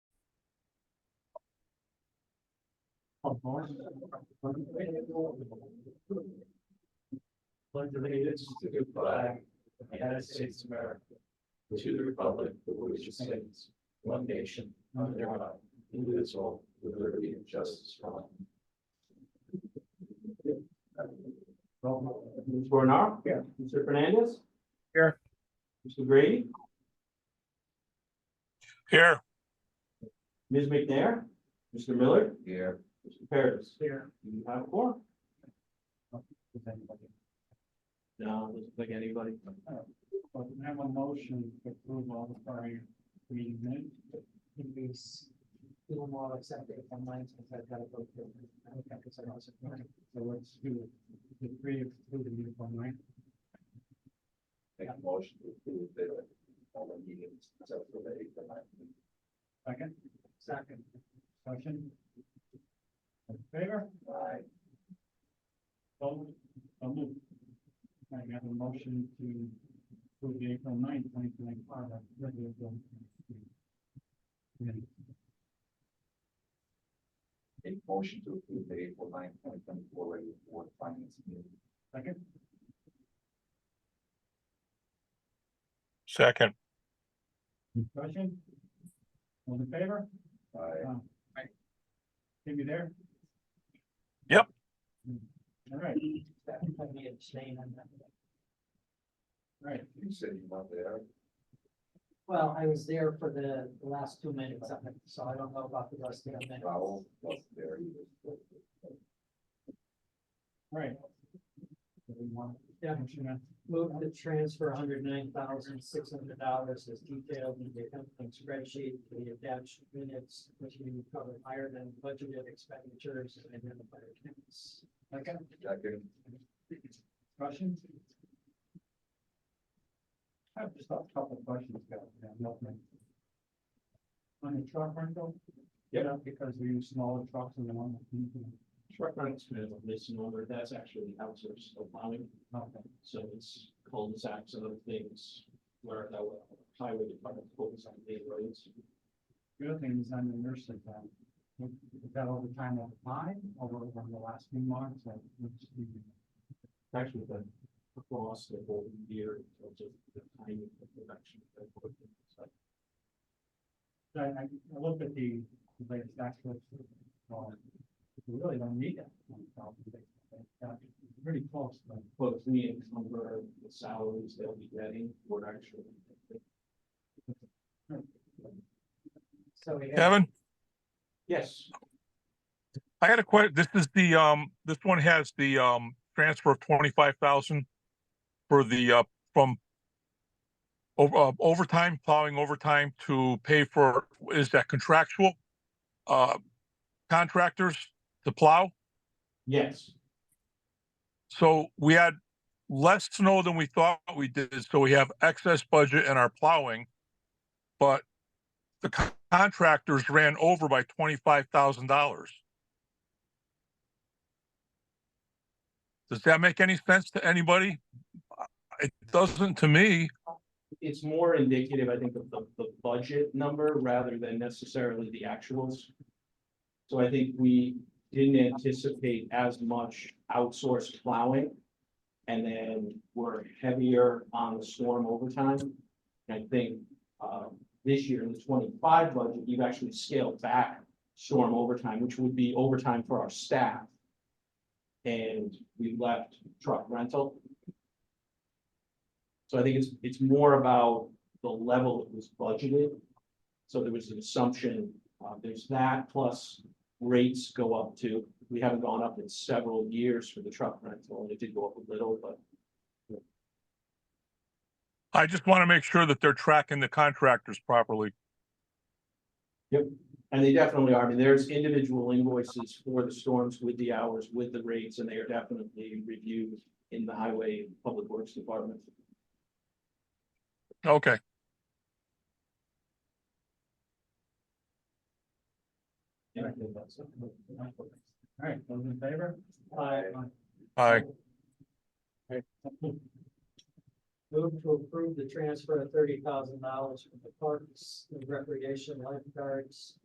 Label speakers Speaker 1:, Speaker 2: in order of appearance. Speaker 1: Pledge allegiance to the flag of the United States of America. and To the republic for which it stands, one nation, under God, indivisible, with liberty and justice for all.
Speaker 2: Mr. Bernard? Here. Mr. Fernandez?
Speaker 3: Here.
Speaker 2: Mr. Grady?
Speaker 3: Here,
Speaker 2: Ms. McNair? Mr. Miller?
Speaker 1: Here.
Speaker 2: Mr. Paris?
Speaker 1: Here.
Speaker 2: You have four. No, doesn't like anybody.
Speaker 1: Oh, But we have a motion to approve all the prior reading minutes.
Speaker 4: in these, we will not accept it if I'm lying, since I've got to go through. it. I don't think it's an awesome plan.
Speaker 1: So let's do the three of two to move on, right? Make a motion to approve the, uh, all the meetings, except for the eighth and ninth. Second? Second. Question? In favor? Aye. So, so moved. I have a motion to approve the April ninth, twenty twenty-five, uh, regular bill. A motion to approve the April ninth, twenty twenty-four regular board finance meeting. Second?
Speaker 3: second,
Speaker 1: Discussion? All in favor? Aye. Can you there?
Speaker 3: Yep.
Speaker 1: All right,
Speaker 4: That would probably be a shame on that.
Speaker 1: all right. You said you weren't there.
Speaker 4: Well, I was there for the the last two minutes, of it, so I don't know about the rest of the minutes.
Speaker 1: Raul wasn't there either. Right.
Speaker 4: Yeah.
Speaker 1: Motion
Speaker 4: Move to transfer hundred nine thousand six hundred dollars as detailed in the accompanying spreadsheet to the attached minutes, which we covered higher than budgeted expenditures and identified accounts.
Speaker 1: Second? Second. Questions? I have just a couple of questions, guys, yeah, nothing. On the truck rental? Yeah. Because we use smaller trucks than the one. that we do.
Speaker 2: Truck runs, listen over, that's actually outsourced of plowing,
Speaker 1: Okay.
Speaker 2: so it's cul-de-sacs and other things where the highway department focuses on the roads.
Speaker 1: The other thing is on the nursing plan. Is that all the time of five or over the last few months? or which do you-
Speaker 2: Actually, been across the whole year in terms of the timing of production. of equipment. So
Speaker 1: I, I I looked at the the latest actual. um, We really don't need that. one thousand base, but, uh, Pretty close, but
Speaker 2: Both we encumber the salaries they'll be getting, we're actually.
Speaker 4: So we have,
Speaker 3: Kevin,
Speaker 2: Yes,
Speaker 3: I had a question. this is the, um, this one has the, um, transfer of twenty-five thousand for the, uh, from over, uh, overtime, plowing overtime to pay for, is that contractual? Uh, contractors to plow?
Speaker 2: yes.
Speaker 3: So we had less snow than we thought we did, so we have excess budget in our plowing. But the co- contractors ran over by twenty-five thousand dollars. Does that make any sense to anybody? Uh, It doesn't to me.
Speaker 2: it's more indicative, I think, of the, the budget number rather than necessarily the actuals. So I think we didn't anticipate as much outsourced plowing. And then we're heavier on the storm overtime. And I think, um, this year in the twenty-five budget, you've actually scaled back storm overtime, which would be overtime for our staff. And we left truck rental. So I think it's, it's more about the level that was budgeted. So there was an assumption, uh, there's that plus rates go up too. We haven't gone up in several years for the truck rental, and it did go up a little, but
Speaker 3: I just want to make sure that they're tracking the contractors properly.
Speaker 2: And they definitely are. I mean, there's individual invoices for the storms with the hours, with the rates, and they are definitely reviewed in the highway and public works department.
Speaker 3: Okay,
Speaker 2: And I think that's-
Speaker 1: all right, those in favor?
Speaker 2: Aye.
Speaker 3: I,
Speaker 4: move to approve the transfer of thirty thousand dollars from the parks, and recreation lifeguards